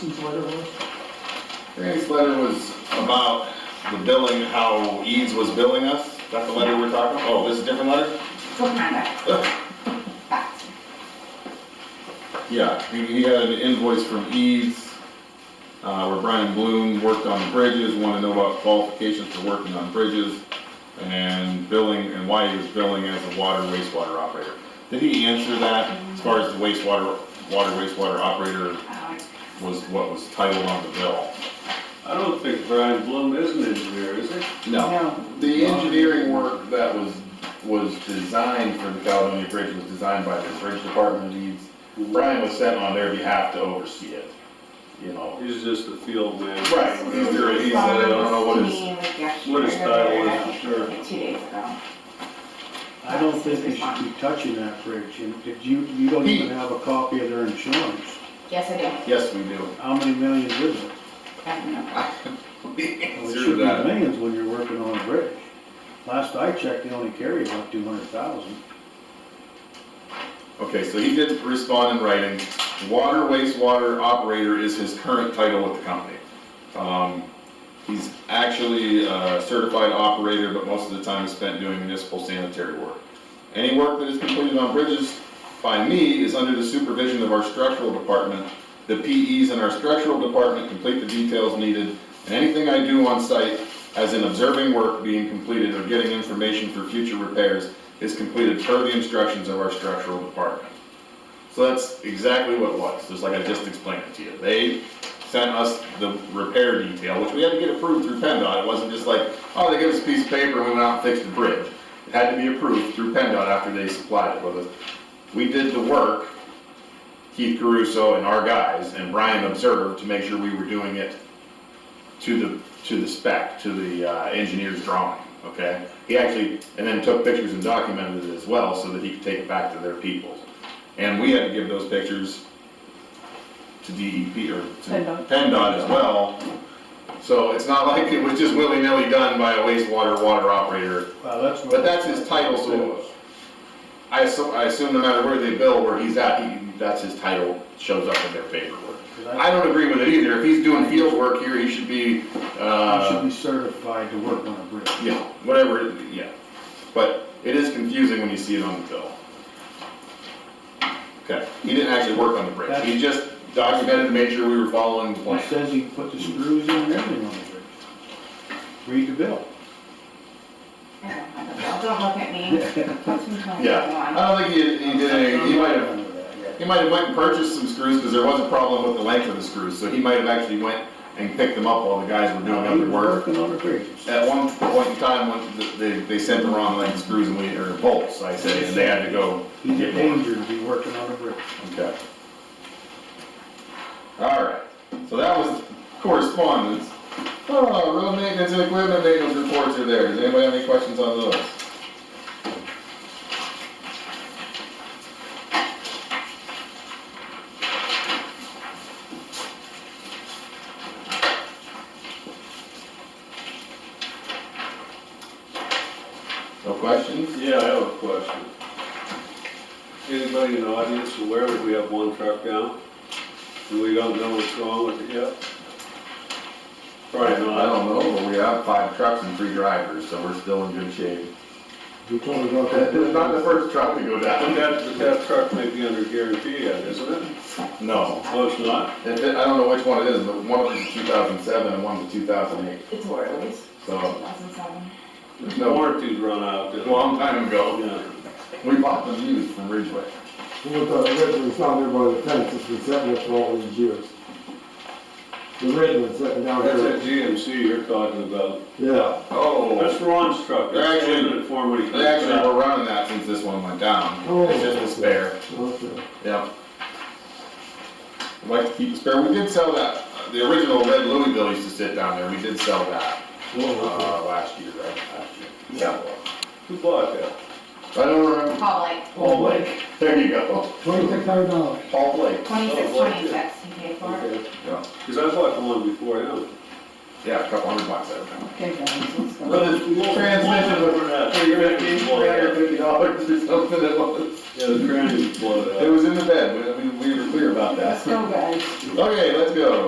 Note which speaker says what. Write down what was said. Speaker 1: Grayson's letter was?
Speaker 2: Frank's letter was about the billing, how Eads was billing us. That's the letter we're talking, oh, this is a different letter?
Speaker 3: Don't matter. Back.
Speaker 2: Yeah, he, he had an invoice from Eads, uh, where Brian Bloom worked on bridges, wanted to know about qualifications for working on bridges, and billing, and why he was billing as a water wastewater operator. Did he answer that as far as the wastewater, water wastewater operator
Speaker 3: Um,
Speaker 2: was what was titled on the bill?
Speaker 4: I don't think Brian Bloom is an engineer, is he?
Speaker 1: No.
Speaker 2: The engineering work that was, was designed for the Caledonia Bridge was designed by the Bridge Department leads. Brian was sent on their behalf to oversee it, you know.
Speaker 4: He's just a field man.
Speaker 2: Right, he's there, he's, I don't know what his,
Speaker 3: Meeting with Jeff
Speaker 4: What his
Speaker 3: Schroeder,
Speaker 4: title is,
Speaker 3: I think,
Speaker 4: sure.
Speaker 3: like Two days ago.
Speaker 5: I don't think they should be touching that bridge, and if you, you don't even have a copy of their insurance,
Speaker 3: Yes, I do.
Speaker 2: yes, we do.
Speaker 5: how many millions is it?
Speaker 3: I don't know.
Speaker 5: Well, It should be millions when you're working on a bridge. Last I checked, they only carry about two hundred thousand.
Speaker 2: Okay, so he did respond in writing, water wastewater operator is his current title with the company. Um, He's actually a certified operator, but most of the time is spent doing municipal sanitary work. Any work that is completed on bridges by me is under the supervision of our structural department. The PEs in our structural department complete the details needed, and anything I do on site, as in observing work being completed or getting information for future repairs, is completed per the instructions of our structural department. So that's exactly what it was, just like I just explained it to you. They sent us the repair detail, which we had to get approved through PennDOT. It wasn't just like, oh, they gave us a piece of paper and we went out and fixed the bridge. It had to be approved through PennDOT after they supplied it with us. We did the work, Keith Caruso and our guys, and Brian observed to make sure we were doing it to the, to the spec, to the uh, engineer's drawing, okay? He actually, and then took pictures and documented it as well, so that he could take it back to their people. And we had to give those pictures to DEP, or to
Speaker 1: PennDOT.
Speaker 2: PennDOT as well. So it's not like it was just willy-nilly done by a wastewater water operator.
Speaker 5: Well, that's what.
Speaker 2: But that's his title, so I assume, I assume no matter where they bill, where he's at, he, that's his title, shows up in their paperwork. I don't agree with it either. If he's doing field work here, he should be,
Speaker 5: You should
Speaker 2: uh,
Speaker 5: be certified to work on a bridge.
Speaker 2: yeah, whatever, it- yeah. But it is confusing when you see it on the bill. Okay, he didn't actually work on the bridge. He just documented, made sure we were following the
Speaker 5: He
Speaker 2: plan.
Speaker 5: says he put the screws in and everything on the bridge. Read the bill.
Speaker 3: I don't know. Don't- Don't look at me. Put some time
Speaker 2: Yeah,
Speaker 3: on.
Speaker 2: I don't think he, he did any, he might have He might have went and purchased some screws, because there was a problem with the length of the screws, so he might have actually went and picked them up while the guys were doing
Speaker 5: No, he
Speaker 2: other
Speaker 5: was
Speaker 2: work.
Speaker 5: working on a bridge.
Speaker 2: At one point in time, when th- they, they sent the wrong length screws and we, or bolts, I say, and they had to go
Speaker 5: He's
Speaker 2: get
Speaker 5: in
Speaker 2: more.
Speaker 5: danger to be working on a bridge.
Speaker 2: Okay. All right, so that was correspondence. Oh, road maintenance and equipment maintenance reports are there, does anybody have any questions on those? No questions?
Speaker 4: Yeah, I have a question. Anybody in the audience aware that we have one truck down? And we don't know what's wrong with it yet?
Speaker 2: I
Speaker 4: Probably not.
Speaker 2: don't know, but we have five trucks and three drivers, so we're still in good shape.
Speaker 5: You told me about
Speaker 2: Not the first truck to go
Speaker 4: But
Speaker 2: down.
Speaker 4: that, but that truck may be under guarantee yet, isn't it?
Speaker 2: No.
Speaker 4: No, it's not.
Speaker 2: If it, I don't know which one it is, but one of them's a 2007 and one's a 2008,
Speaker 3: It's Worley's,
Speaker 2: so
Speaker 3: 2007.
Speaker 2: it's
Speaker 4: The
Speaker 2: no,
Speaker 4: warranty's run out
Speaker 2: a
Speaker 4: then.
Speaker 2: long time ago.
Speaker 4: Yeah.
Speaker 2: We bought them used from Ridgeway.
Speaker 6: What the originally found there by the fence, it's been sitting there for all these years. The original sitting down
Speaker 4: That's that
Speaker 6: here.
Speaker 4: GMC you're talking about.
Speaker 6: Yeah,
Speaker 2: Oh.
Speaker 4: That's Ron's truck.
Speaker 2: They're
Speaker 4: That's
Speaker 2: actually-
Speaker 4: limited for when he comes
Speaker 2: They actually
Speaker 4: back.
Speaker 2: were running that since this one went down.
Speaker 6: Oh.
Speaker 2: It's just a spare,
Speaker 6: okay.
Speaker 2: yep. I'd like to keep the spare, we did sell that, the original red Louisville used to sit down there, we did sell that,
Speaker 6: Well,
Speaker 2: uh, last year, right? Last year. Yeah.
Speaker 4: Who bought that?
Speaker 2: I don't remember,
Speaker 3: Paul Blake,
Speaker 2: Paul Blake, there you go,
Speaker 6: Twenty-six hundred dollars.
Speaker 2: Paul Blake,
Speaker 3: twenty-six,
Speaker 4: Oh, Blake did.
Speaker 3: twenty-six, he paid for it.
Speaker 4: Okay.
Speaker 2: Yeah.
Speaker 4: Cause I bought the one before him.
Speaker 2: yeah, a couple hundred bucks, I remember.
Speaker 1: Okay, guys, let's go.
Speaker 2: But the transmission was three fifty, three hundred fifty dollars or something it was.
Speaker 4: Yeah, the transit blew it up.
Speaker 2: It was in the bed, we, I mean, we were clear about
Speaker 1: Let's
Speaker 2: that.
Speaker 1: go, guys.
Speaker 2: Okay, let's go.